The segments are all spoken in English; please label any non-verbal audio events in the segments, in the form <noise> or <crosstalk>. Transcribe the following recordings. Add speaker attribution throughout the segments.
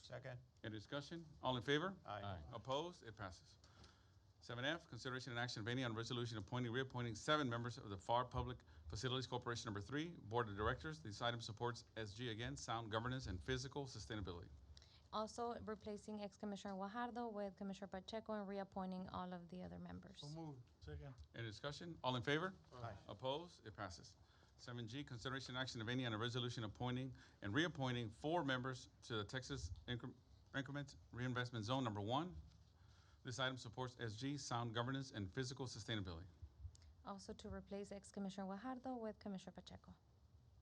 Speaker 1: Second.
Speaker 2: Any discussion? All in favor?
Speaker 1: Aye.
Speaker 2: Opposed? It passes. Seven F, consideration and action, of any, on resolution appointing, reappointing seven members of the FAR Public Facilities Corporation Number Three Board of Directors. This item supports SG again, sound governance and physical sustainability.
Speaker 3: Also replacing ex-Commissioner Guajardo with Commissioner Pacheco and reappointing all of the other members.
Speaker 1: moved. Second.
Speaker 2: Any discussion? All in favor?
Speaker 1: Aye.
Speaker 2: Opposed? It passes. Seven G, consideration and action, of any, on a resolution appointing and reappointing four members to the Texas Incre- Increment Reinvestment Zone Number One. This item supports SG, sound governance and physical sustainability.
Speaker 3: Also to replace ex-Commissioner Guajardo with Commissioner Pacheco.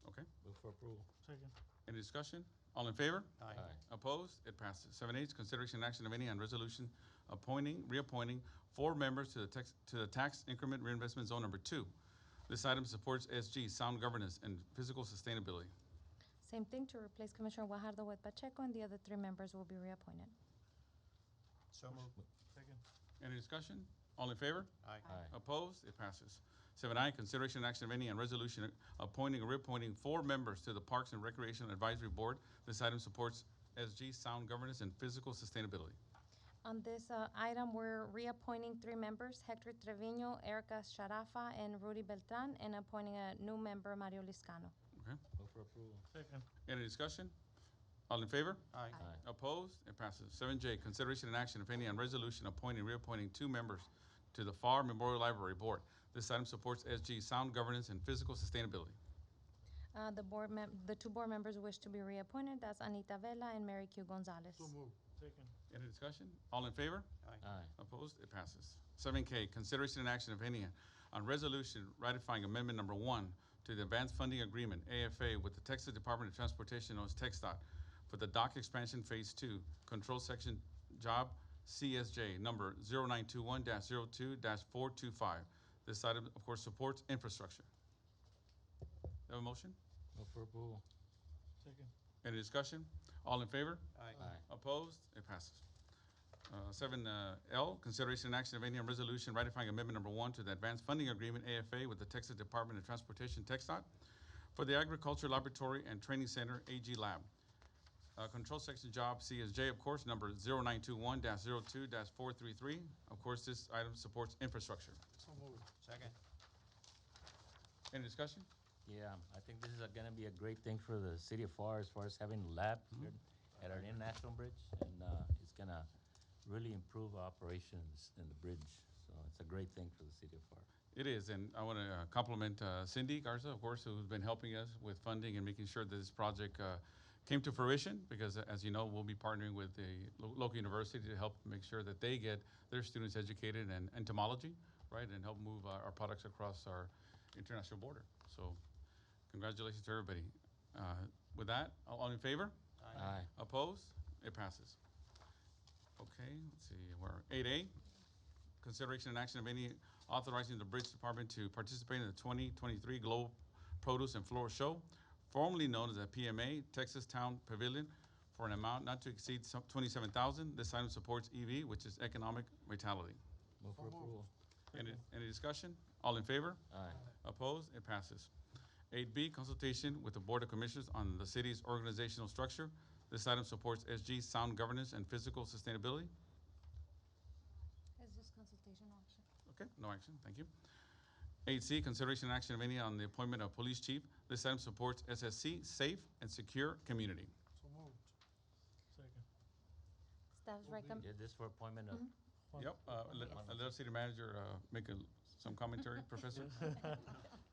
Speaker 2: Okay.
Speaker 4: Move for approval.
Speaker 1: Second.
Speaker 2: Any discussion? All in favor?
Speaker 1: Aye.
Speaker 2: Opposed? It passes. Seven H, consideration and action of any on resolution appointing, reappointing four members to the tax, to the tax increment reinvestment zone number two. This item supports SG, sound governance and physical sustainability.
Speaker 3: Same thing to replace Commissioner Guajardo with Pacheco and the other three members will be reappointed.
Speaker 1: So moved. Second.
Speaker 2: Any discussion? All in favor?
Speaker 1: Aye.
Speaker 4: Aye.
Speaker 2: Opposed? It passes. Seven I, consideration and action of any on resolution appointing or reappointing four members to the Parks and Recreation Advisory Board. This item supports SG, sound governance and physical sustainability.
Speaker 3: On this uh, item, we're reappointing three members, Hector Trevino, Erica Sharafa, and Rudy Beltran, and appointing a new member, Mario Liscano.
Speaker 4: Move for approval.
Speaker 1: Second.
Speaker 2: Any discussion? All in favor?
Speaker 1: Aye.
Speaker 2: Opposed? It passes. Seven J, consideration and action, if any, on resolution appointing, reappointing two members to the FAR Memorial Library Board. This item supports SG sound governance and physical sustainability.
Speaker 3: Uh, The board mem, the two board members wish to be reappointed, that's Anita Vela and Mary Q. Gonzalez.
Speaker 1: moved. Second.
Speaker 2: Any discussion? All in favor?
Speaker 4: Aye.
Speaker 2: Opposed? It passes. Seven K, consideration and action, if any, on resolution ratifying amendment number one to the Advanced Funding Agreement, AFA, with the Texas Department of Transportation, known as E TxDOT, for the dock expansion phase two, control section job CSJ number 921 2 four two five. This item, of course, supports infrastructure. Have a motion?
Speaker 4: Move for approval.
Speaker 1: Second.
Speaker 2: Any discussion? All in favor?
Speaker 1: Aye.
Speaker 2: Opposed? It passes. Uh, Seven uh, L, consideration and action of any on resolution ratifying amendment number one to the Advanced Funding Agreement AFA with the Texas Department of Transportation, TxDOT, for the Agriculture Laboratory and Training Center, AG Lab. Uh, Control section job CSJ, of course, number 0921-02-433. Of course, this item supports infrastructure.
Speaker 1: So moved. Second.
Speaker 2: Any discussion?
Speaker 4: Yeah, I think this is a- gonna be a great thing for the city of FAR as far as having lab here at our international bridge. And, uh, it's gonna really improve operations in the bridge. So it's a great thing for the city of FAR.
Speaker 2: It is, and I want to compliment uh, Cindy Garza, of course, who's been helping us with funding and making sure that this project uh, came to fruition, because uh, as you know, we'll be partnering with the lo- local university to help make sure that they get their students educated in entomology, right, and help move uh, our our products across our international border. So congratulations to everybody. Uh, With that, all all in favor?
Speaker 4: Aye.
Speaker 2: Opposed? It passes. Okay, let's see, we're eight A. Consideration and action of any authorizing the Bridge Department to participate in the twenty twenty-three Globe Produce and Floral Show, formerly known as the PMA Texas Town Pavilion, for an amount not to exceed twenty-seven thousand. This item supports EV, which is economic vitality.
Speaker 4: Move for
Speaker 1: moved.
Speaker 4: approval.
Speaker 2: Any, any discussion? All in favor?
Speaker 4: Aye.
Speaker 2: Opposed? It passes. Eight B, consultation with the Board of Commissioners on the city's organizational structure. This item supports SG sound governance and physical sustainability.
Speaker 3: It's just consultation option.
Speaker 2: Okay, no action, thank you. Eight C, consideration and action, if any, on the appointment of police chief. This item supports SSC, safe and secure community.
Speaker 1: So moved. Second.
Speaker 3: Staff's
Speaker 1: Will be-
Speaker 3: recommend,
Speaker 4: Yeah, this for appointment of,
Speaker 2: Yep, uh, let,
Speaker 4: Yes.
Speaker 2: let our city manager, uh, make a, some commentary, Professor.
Speaker 4: <laughs>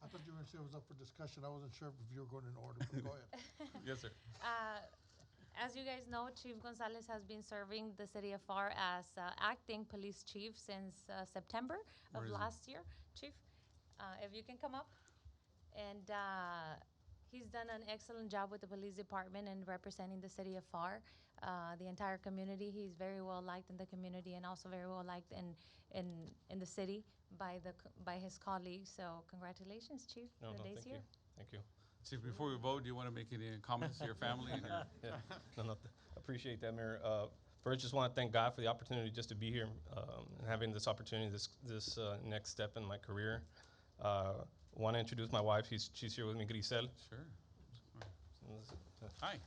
Speaker 5: I thought you were gonna say it was up for discussion. I wasn't sure if you were going in order, but
Speaker 1: <laughs>
Speaker 5: go ahead.
Speaker 2: Yes, sir.
Speaker 3: Uh, As you guys know, Chief Gonzalez has been serving the city of FAR as uh, acting police chief since uh, September
Speaker 2: Where
Speaker 3: of
Speaker 2: is he?
Speaker 3: last year. Chief, uh, if you can come up. And uh, he's done an excellent job with the police department and representing the city of FAR, uh, the entire community. He's very well liked in the community and also very well liked in, in, in the city by the, co- by his colleagues. So congratulations, Chief.
Speaker 6: No,
Speaker 3: The
Speaker 6: no,
Speaker 3: day's
Speaker 6: thank you.
Speaker 3: here.
Speaker 6: Thank you.
Speaker 2: Chief, before we vote, do you wanna make any comments to your family and your
Speaker 6: No, no, th- appreciate that, Mayor. Uh, First, just want to thank God for the opportunity just to be here um, and having this opportunity, this, this uh, next step in my career. Uh, Want to introduce my wife, she's, she's here with me, Grisel.
Speaker 2: Sure. Hi.